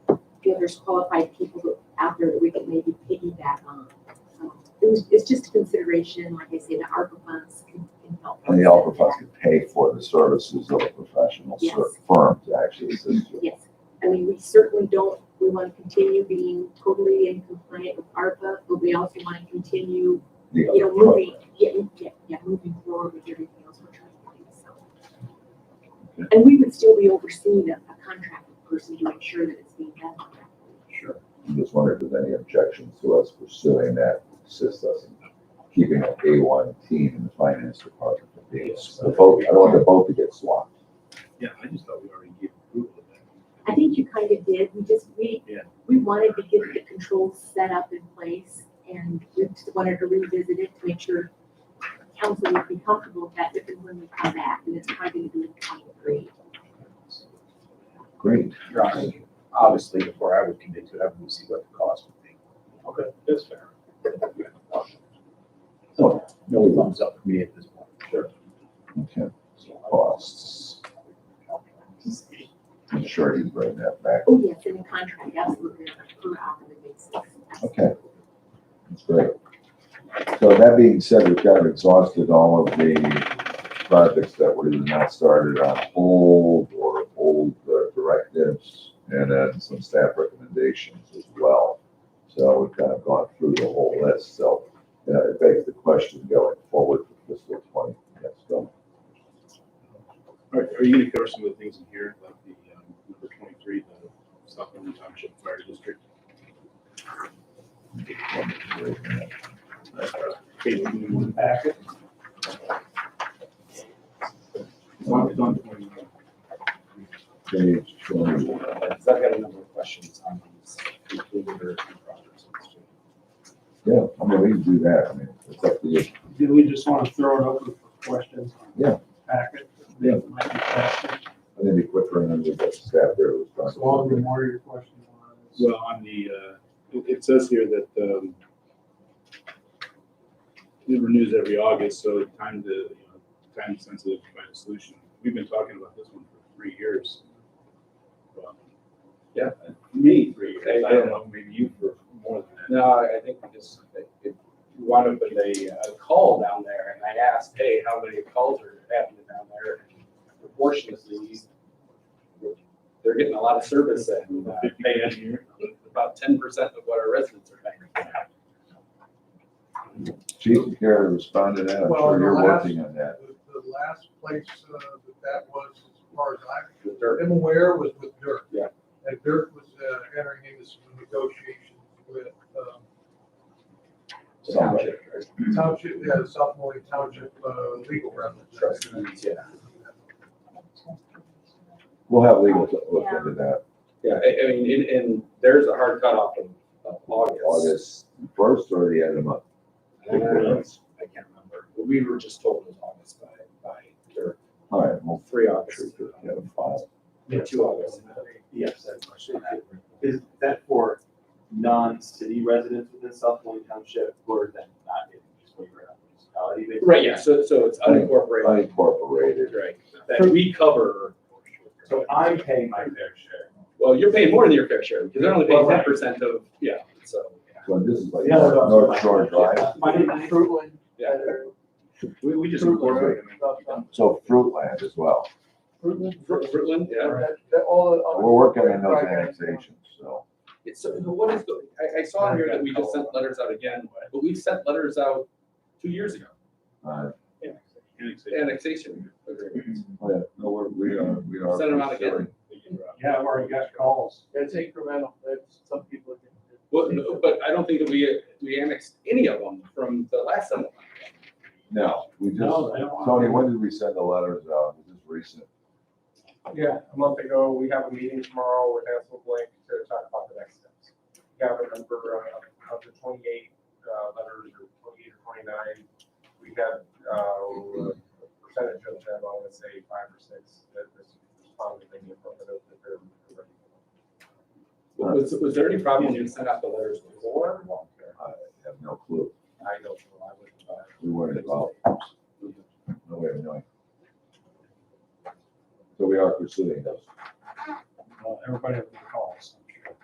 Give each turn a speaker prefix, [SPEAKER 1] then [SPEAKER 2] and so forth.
[SPEAKER 1] feel there's qualified people that- out there that we could maybe piggyback on. So It was, it's just a consideration, like I say, the ARPA funds can, can help.
[SPEAKER 2] And the
[SPEAKER 1] us
[SPEAKER 2] ALPA
[SPEAKER 1] with that.
[SPEAKER 2] funds could pay for the services of a professional
[SPEAKER 1] Yes.
[SPEAKER 2] ser- firm to actually assist you.
[SPEAKER 1] Yes, I mean, we certainly don't, we want to continue being totally in compliant with ARPA, but we also want to continue,
[SPEAKER 2] The
[SPEAKER 1] you know,
[SPEAKER 2] other part.
[SPEAKER 1] moving, getting, yeah, yeah, moving forward with everything else we're trying to do, so. And we would still be overseeing a, a contracted person to make sure that it's being done. correctly.
[SPEAKER 2] Sure. I'm just wondering if there's any objections to us pursuing that, assist us in keeping an A1 team in the finance department from being,
[SPEAKER 3] Yes.
[SPEAKER 2] the boat, I don't want the boat to get swamped.
[SPEAKER 3] Yeah, I just thought we already gave approval of that.
[SPEAKER 1] I think you kind of did, we just, we,
[SPEAKER 3] Yeah.
[SPEAKER 1] we wanted to get the controls set up in place, and we just wanted to revisit it to make sure council would be comfortable with that if and when we come back, and it's probably gonna be in twenty-three.
[SPEAKER 2] Great.
[SPEAKER 4] Your Honor, obviously, before I would commit to it, I would see what the cost would be.
[SPEAKER 3] Okay, that's fair.
[SPEAKER 4] So, no thumbs up for me at this point. Sure.
[SPEAKER 2] Okay.
[SPEAKER 4] So,
[SPEAKER 2] Costs. I'm sure he's bringing that back.
[SPEAKER 1] Oh, yes, in the contract, absolutely, on a per hour basis.
[SPEAKER 2] Okay. That's great. So that being said, we've kind of exhausted all of the projects that were either not started on hold or old uh, directives and then some staff recommendations as well. So we've kind of gone through the whole list. So uh, it begs the question going forward for fiscal twenty. Yes, Bill?
[SPEAKER 3] Are, are you gonna cover some of the things in here, like the, um, number twenty-three, the South Bend Township Fire District? Page one. It's on, it's on twenty-one.
[SPEAKER 2] Page twenty-one.
[SPEAKER 4] I've got a number of questions on these completed or projects.
[SPEAKER 2] Yeah, I mean, we can do that. I mean, it's up to you.
[SPEAKER 5] Do we just want to throw it open for questions? on the
[SPEAKER 2] Yeah.
[SPEAKER 5] Packet?
[SPEAKER 2] Yeah.
[SPEAKER 5] Might be faster,
[SPEAKER 2] I think we quit running with that staff there. was trying
[SPEAKER 5] As
[SPEAKER 2] to-
[SPEAKER 5] long as the more your questions are. it's-
[SPEAKER 3] Well, on the, uh, it, it says here that, um, it renews every August, so time to, you know, time sensitive to find a solution. We've been talking about this one for three years. Well,
[SPEAKER 4] Yeah.
[SPEAKER 3] Me, three years. I don't know, maybe you for more than that.
[SPEAKER 4] No, I I think we just, if you want to put a, a call uh, down there, and I asked, hey, how many calls are happening down there? And Proportionately, they're getting a lot of service and uh,
[SPEAKER 3] Fifty
[SPEAKER 4] paying
[SPEAKER 3] grand a year.
[SPEAKER 4] about ten percent of what our residents are paying.
[SPEAKER 2] Chief and Kara responded to that. I'm
[SPEAKER 6] Well,
[SPEAKER 2] sure you're
[SPEAKER 6] the last-
[SPEAKER 2] working on that.
[SPEAKER 6] The, the last place uh, that that was, as far as
[SPEAKER 4] The dirt.
[SPEAKER 6] I am aware, was with Dirk.
[SPEAKER 4] Yeah.
[SPEAKER 6] And Dirk was uh, entering into some negotiations with um,
[SPEAKER 2] Somebody.
[SPEAKER 6] township, yeah, South Moline Township uh, legal representative.
[SPEAKER 4] Trustees, yeah.
[SPEAKER 2] We'll have legal to look into that.
[SPEAKER 4] Yeah, I, I mean, and, and there's a hard cutoff of, of August.
[SPEAKER 2] August first or the end of the month?
[SPEAKER 4] Uh, I can't remember. We were just told it was August by, by Dirk,
[SPEAKER 2] All right, well,
[SPEAKER 4] three
[SPEAKER 2] sure,
[SPEAKER 4] August.
[SPEAKER 2] we have a file.
[SPEAKER 4] Yeah, two August.
[SPEAKER 7] Yes, I have a question on that. Is that for non-city residents within South Moline Township or then not in just waiver of municipality? They-
[SPEAKER 4] Right, yeah, so, so it's unincorporated,
[SPEAKER 2] Unincorporated.
[SPEAKER 4] right, that we cover.
[SPEAKER 7] So I'm paying my fair share.
[SPEAKER 4] Well, you're paying more than your fair share, because they're only paying
[SPEAKER 7] Well,
[SPEAKER 4] ten
[SPEAKER 7] right.
[SPEAKER 4] percent of, yeah, so.
[SPEAKER 2] So this is like
[SPEAKER 7] Yeah, that's what I'm
[SPEAKER 2] North Shore
[SPEAKER 7] saying.
[SPEAKER 2] Drive.
[SPEAKER 7] My name is Drew.
[SPEAKER 4] Yeah.
[SPEAKER 3] We, we just incorporate them.
[SPEAKER 2] So Fruitland as well.
[SPEAKER 4] Fr- Fruitland, yeah.
[SPEAKER 2] We're working on those annexations, so.
[SPEAKER 4] It's, so what is, the- I, I saw in here that we just sent letters out again, but we sent letters out two years ago,
[SPEAKER 2] uh,
[SPEAKER 3] Annexation.
[SPEAKER 4] annexation agreements.
[SPEAKER 2] but No, we're, we are, we are.
[SPEAKER 4] Mm-hmm. Send them out again.
[SPEAKER 2] pursuing-
[SPEAKER 5] Yeah, I've already got calls.
[SPEAKER 7] That's incremental, that's some people.
[SPEAKER 4] Well, no, but I don't think that we, we annexed any of them from the last settlement.
[SPEAKER 2] No, we just,
[SPEAKER 5] No, they don't.
[SPEAKER 2] Tony, when did we send the letters out? Was this recent?
[SPEAKER 6] Yeah, a month ago, we have a meeting tomorrow with Hansel Blank to talk about the next steps. We have a number uh, of the twenty-eight uh, letters, or twenty-eight or twenty-nine. We have uh, a percentage of them, I would say five or six, that responded in the affirmative that they're ready.
[SPEAKER 4] Was, was there any problem when you sent out the letters before?
[SPEAKER 2] I have no clue.
[SPEAKER 4] I don't know, I wouldn't. uh,
[SPEAKER 2] We weren't involved. No way of knowing. So we are pursuing those.
[SPEAKER 5] Well, Everybody has calls.